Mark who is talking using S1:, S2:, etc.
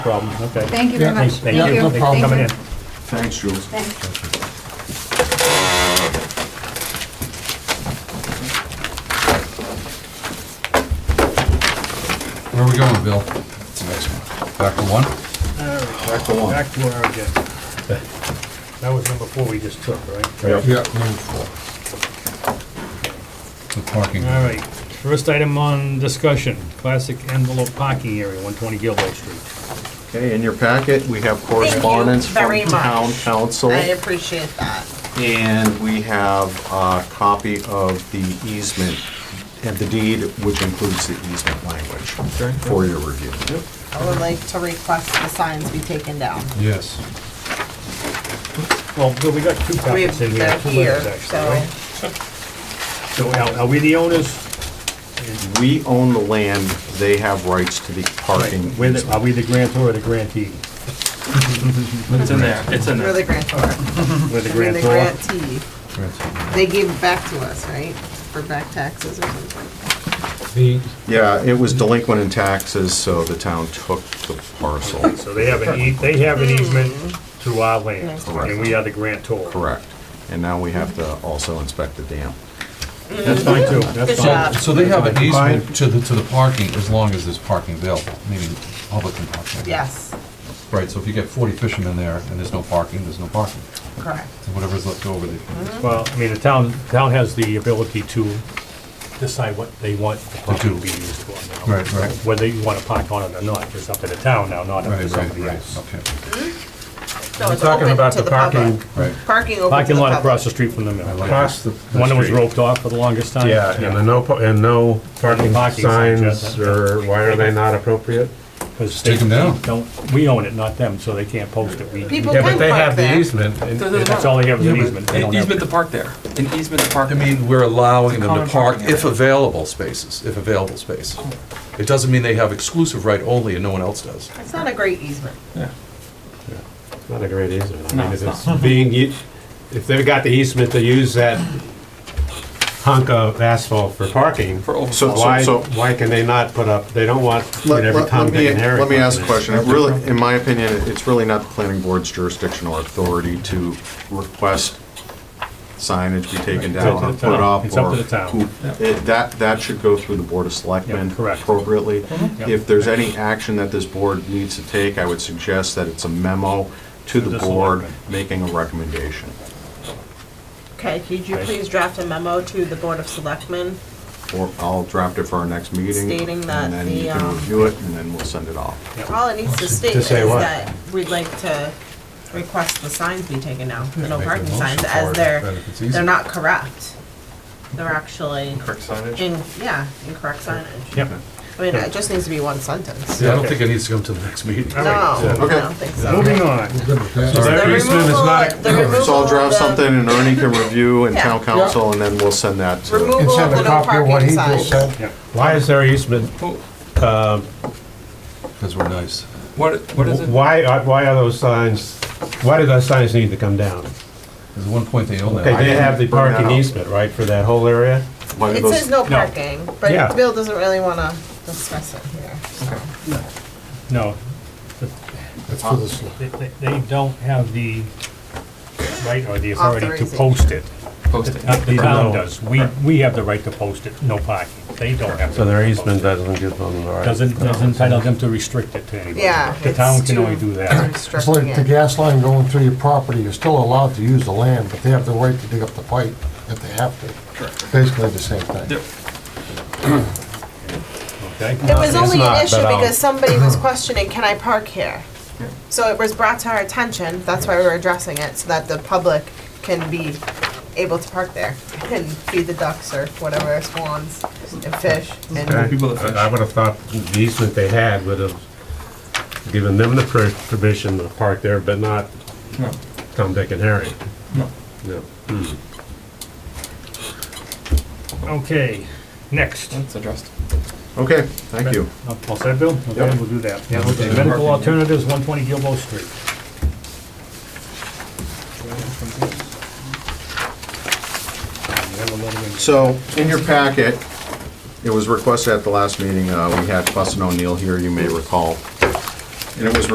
S1: problem, okay.
S2: Thank you very much.
S1: Thanks, thank you.
S2: Thank
S1: Thanks for coming in.
S2: Thank
S3: Thanks, Jules.
S2: you. Thanks.
S4: Where are we going, Bill? It's the next one. Back to one?
S3: Back to one.
S1: Back to our agenda. That was number four we just took, right?
S3: Yep.
S4: Yeah. Number four. The parking.
S1: All right, first item on discussion, classic envelope parking area, 120 Gilboa Street.
S3: Okay, in your packet, we have correspondence
S5: very
S3: from
S5: much.
S3: town council.
S5: I appreciate that.
S3: And we have a copy of the easement and the deed, which includes the easement language for your review.
S5: I would like to request the signs be taken down.
S4: Yes.
S1: Well, Bill, we got two
S5: We-
S1: copies in here,
S5: They're
S1: two
S5: here,
S1: letters actually,
S5: so,
S1: right? So are are we the owners?
S3: We own the land, they have rights to the parking.
S1: Right, we're the- Are we the grantor or the grantee?
S6: It's in there, it's in
S5: we're
S6: there.
S5: the grantor. I
S1: We're the
S5: mean, the
S1: grantor.
S5: grantee. They gave it back to us, right? For back taxes or something.
S3: Yeah, it was delinquent in taxes, so the town took the parcel.
S1: So they have an ea, they have an easement to our land,
S3: Correct.
S1: and we are the grantor.
S3: Correct. And now we have to also inspect the dam.
S1: That's fine too, that's
S5: Good
S1: fine.
S5: job.
S4: So they have an
S1: Fine.
S4: easement to the, to the parking as long as there's parking available, meaning public can park there.
S5: Yes,
S4: Right, so if you get forty fishermen there and there's no parking, there's no parking.
S5: correct.
S4: So whatever's left over, they can
S7: Mm-hmm.
S1: Well, I mean, the town, town has the ability to decide what they want the property to be
S4: do.
S1: used for now.
S4: Right, right.
S1: Whether you want to park on it or not, is up to the town now, not up
S4: Right,
S1: to
S4: right,
S1: somebody
S4: right,
S1: else.
S4: okay.
S5: No,
S6: We're
S5: it's
S6: talking
S5: open
S6: about
S5: to
S6: the parking-
S5: public.
S4: Right.
S5: Parking open to the
S1: Parking lot across
S5: public.
S1: the street from the mill.
S4: I like
S1: One
S6: Across the. the
S1: that was
S6: street.
S1: roped off for the longest time.
S6: Yeah, and the no, pa- and no parking
S1: Parking signs,
S6: signs,
S1: yeah.
S6: or why are they not appropriate?
S1: 'Cause
S4: Take 'em
S1: they-
S4: down.
S1: don't- We own it, not them, so they can't post it. We-
S5: People
S6: Yeah,
S5: can
S6: but they
S5: park
S6: have the
S5: there.
S6: easement. and-
S7: There's
S1: That's all they have is an easement. They
S7: An
S1: don't have-
S7: easement to park there, an easement to park.
S4: I mean, we're allowing them to
S7: Common
S4: park
S7: parking
S4: if
S7: area.
S4: available spaces, if available space. It doesn't mean they have exclusive right only and no one else does.
S5: It's not a great easement.
S6: It's Not a great easement. I
S7: No,
S6: mean,
S7: it's
S6: if it's being, u- if they've got the easement to use that hunk of asphalt for parking,
S7: For over.
S3: So-
S6: why,
S3: so-
S6: why can they not put up, they don't want you know,
S3: Let
S6: every
S3: let-
S6: Tom,
S3: let
S6: Dick
S3: me,
S6: and Harry.
S3: let me
S6: parking
S3: ask a
S6: there.
S3: question. It Really, in my opinion, it's really not the planning board's jurisdiction or authority to request signage be taken
S1: It's up
S3: down
S1: to
S3: or
S1: the
S3: put
S1: town.
S3: up.
S1: It's up
S3: or
S1: to the town.
S3: who- it- That, that should go through the Board of Selectmen
S1: Yeah, correct. Mhm.
S3: appropriately.
S1: Yep.
S3: If there's any action that this board needs to take, I would suggest that it's a memo to the
S1: the
S3: board
S1: selectmen.
S3: making a recommendation.
S5: Okay, could you please draft a memo to the Board of Selectmen?
S3: Or I'll draft it for our next meeting.
S5: Stating that
S3: And then
S5: the,
S3: you
S5: um,
S3: can review it and then we'll send it off.
S5: All it needs to state is
S6: say what?
S5: that we'd like to request the signs be taken down, the no
S4: make a
S5: parking
S4: motion
S5: signs,
S4: for
S5: as
S4: it,
S5: they're,
S4: then if it's easy.
S5: they're not correct. They're actually
S7: Correct signage.
S5: in, yeah, incorrect signage.
S1: Yep.
S5: I mean, it just needs to be one sentence.
S4: Yeah, I don't
S1: Okay.
S4: think it needs to come to the next meeting.
S5: No, I
S3: Okay.
S5: don't think so.
S1: Moving on.
S6: So
S5: The
S6: their easement is
S5: removal,
S6: not,
S5: of- the removal
S3: So I'll
S5: of
S3: draft
S5: the-
S3: something and Ernie can review and
S5: Yeah.
S3: town council and then we'll send that to.
S5: Removal of the no parking signs.
S1: Yeah.
S6: why is their easement,
S4: Because we're nice.
S7: What, what is it?
S6: why, are- why are those signs, why do those signs need to come down?
S4: There's one point they own
S6: Okay,
S4: that.
S6: they have the
S3: Bring that
S6: parking
S3: up.
S6: easement, right, for that whole area?
S3: Why do
S5: It
S3: those-
S5: says no parking,
S6: Yeah.
S5: but Bill doesn't really wanna discuss it here.
S1: No. They- They they don't have the right or the authority to
S5: Authorization.
S1: post it.
S7: Posting.
S1: Not The town
S6: No.
S1: does. We, we have the right to post it, no parking. They don't have.
S6: So
S1: the
S6: their
S1: right to post
S6: easement
S1: it.
S6: doesn't give them the right.
S1: Doesn't, doesn't entitle them to restrict it to anybody.
S5: Yeah.
S1: The
S5: it's
S1: town can
S5: too
S1: only do that.
S8: It's
S5: restricting
S8: like the
S5: it.
S8: gas line going through your property, you're still allowed to use the land, but they have the right to dig up the pipe if they have to. Basically the same thing.
S1: Okay?
S5: It was only
S6: not,
S5: an issue
S6: but I'll-
S5: because somebody was questioning, can I park here? So it was brought to our attention, that's why we were addressing it, so that the public can be able to park there and feed the ducks or whatever, swans and fish.
S6: Okay.
S5: And
S7: People that fish.
S6: I would have thought the easement they had would have given them the per- permission to park there, but not
S7: No.
S6: Tom, Dick, and Harry.
S7: No.
S6: No.
S1: Okay, next.
S7: That's addressed.
S3: Okay, thank you.
S1: All set, Bill? Okay,
S3: Yep.
S1: we'll do that. Yeah, okay. Medical alternatives, one twenty Gilboa Street. You have a little bit-
S3: So, in your packet, it was requested at the last meeting, uh, we had Fussin O'Neill here, you may recall. And it was